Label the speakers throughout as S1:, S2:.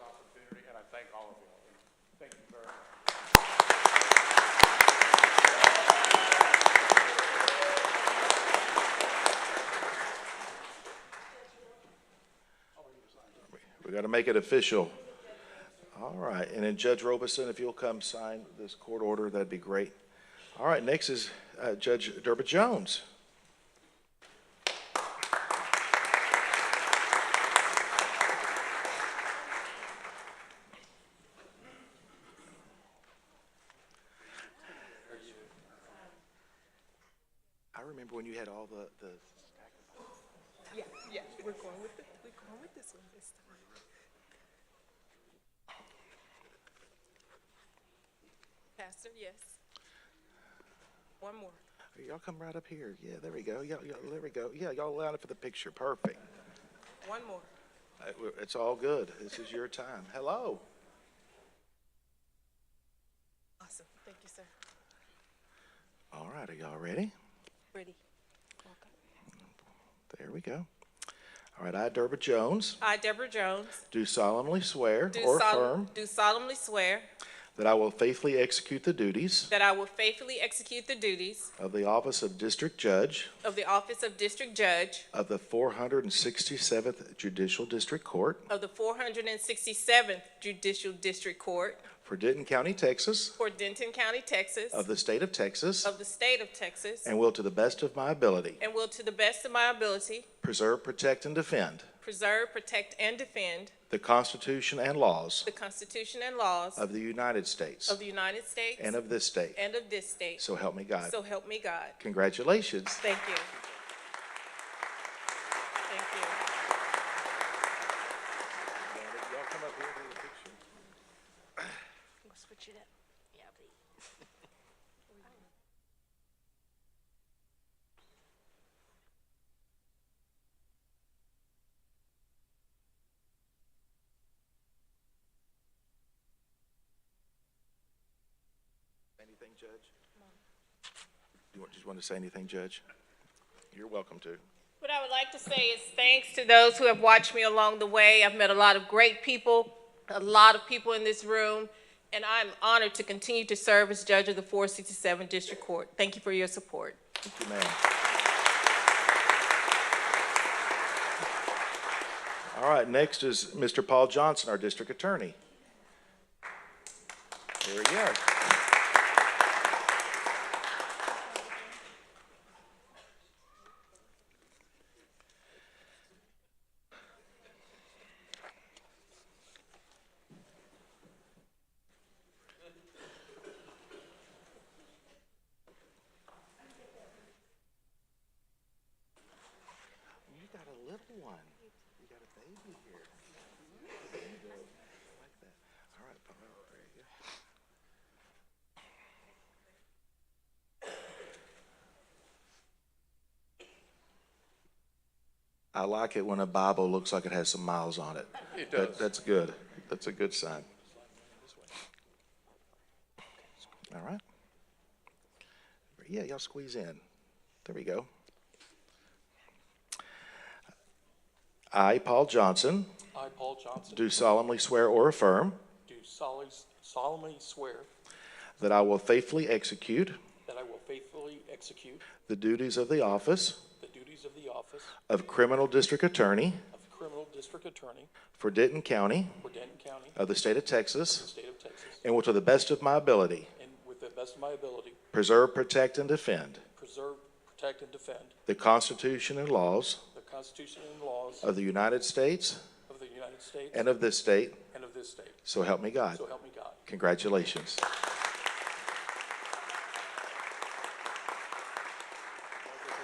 S1: opportunity, and I thank all of you. Thank you very much.
S2: We got to make it official. All right, and then Judge Robeson, if you'll come sign this court order, that'd be great. All right, next is uh, Judge Derba Jones. I remember when you had all the, the
S3: Yeah, yeah, we're going with the, we're going with this one this time. Pastor, yes. One more.
S2: Y'all come right up here. Yeah, there we go. Y'all, y'all, there we go. Yeah, y'all allowed it for the picture. Perfect.
S3: One more.
S2: Uh, w- It's all good. This is your time. Hello.
S3: Awesome. Thank you, sir.
S2: All right, are y'all ready?
S3: Ready.
S2: There we go. All right, I, Derba Jones,
S3: I, Deborah Jones,
S2: do solemnly swear
S3: do
S2: or
S3: sol-
S2: affirm
S3: do solemnly swear
S2: that I will faithfully execute the duties
S3: that I will faithfully execute the duties
S2: of the office of District Judge
S3: of the office of District Judge
S2: of the 467th Judicial District Court
S3: of the 467th Judicial District Court
S2: for Denton County, Texas,
S3: for Denton County, Texas,
S2: of the state of Texas,
S3: of the state of Texas,
S2: and will, to the best of my ability,
S3: and will, to the best of my ability,
S2: preserve, protect, and defend
S3: preserve, protect, and defend
S2: the Constitution and laws
S3: the Constitution and laws
S2: of the United States
S3: of the United States
S2: and of this state.
S3: and of this state.
S2: So help me God.
S3: So help me God.
S2: Congratulations.
S3: Thank you. Thank you.
S4: We'll switch it up. Yeah, please.
S2: Anything, Judge? You want- just want to say anything, Judge? You're welcome to.
S3: What I would like to say is thanks to those who have watched me along the way. I've met a lot of great people, a lot of people in this room, and I'm honored to continue to serve as judge of the 467 District Court. Thank you for your support.
S2: Thank you, ma'am. All right, next is Mr. Paul Johnson, our district attorney. Here we go. You got a little one. You got a baby here. There you go. Like that. All right, Paul, there you go. I like it when a Bible looks like it has some miles on it. It does. That's good. That's a good sign. All right. Yeah, y'all squeeze in. There we go. I, Paul Johnson,
S5: I, Paul Johnson,
S2: do solemnly swear or affirm
S5: do solemnly- solemnly swear
S2: that I will faithfully execute
S5: that I will faithfully execute
S2: the duties of the office
S5: the duties of the office
S2: of Criminal District Attorney
S5: of Criminal District Attorney
S2: for Denton County
S5: for Denton County,
S2: of the State of
S5: the
S2: Texas,
S5: state of Texas,
S2: and will to the best of my ability
S5: and with the best of my ability,
S2: preserve, protect, and defend
S5: preserve, protect, and defend
S2: the Constitution and laws
S5: the Constitution and laws
S2: of the United States
S5: of the United States
S2: and of this state,
S5: and of this state.
S2: so help me God.
S5: So help me God.
S2: Congratulations.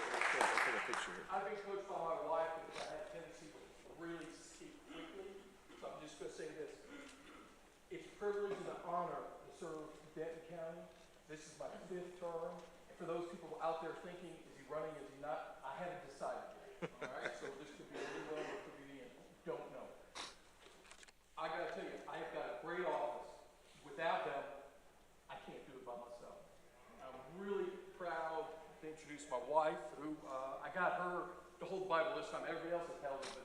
S5: I've been coached by my wife because I have a tendency to really speak quickly, so I'm just gonna say this. It's a privilege and an honor to serve Denton County. This is my fifth term. And For those people out there thinking, is he running, is he not, I haven't decided yet. All right, so this could be a rerun, it could be the end, don't know. I gotta tell you, I have got a great office. Without them, I can't do it by myself. I'm really proud to introduce my wife, who, uh, I got her to hold the Bible this time. Everybody else has held it, but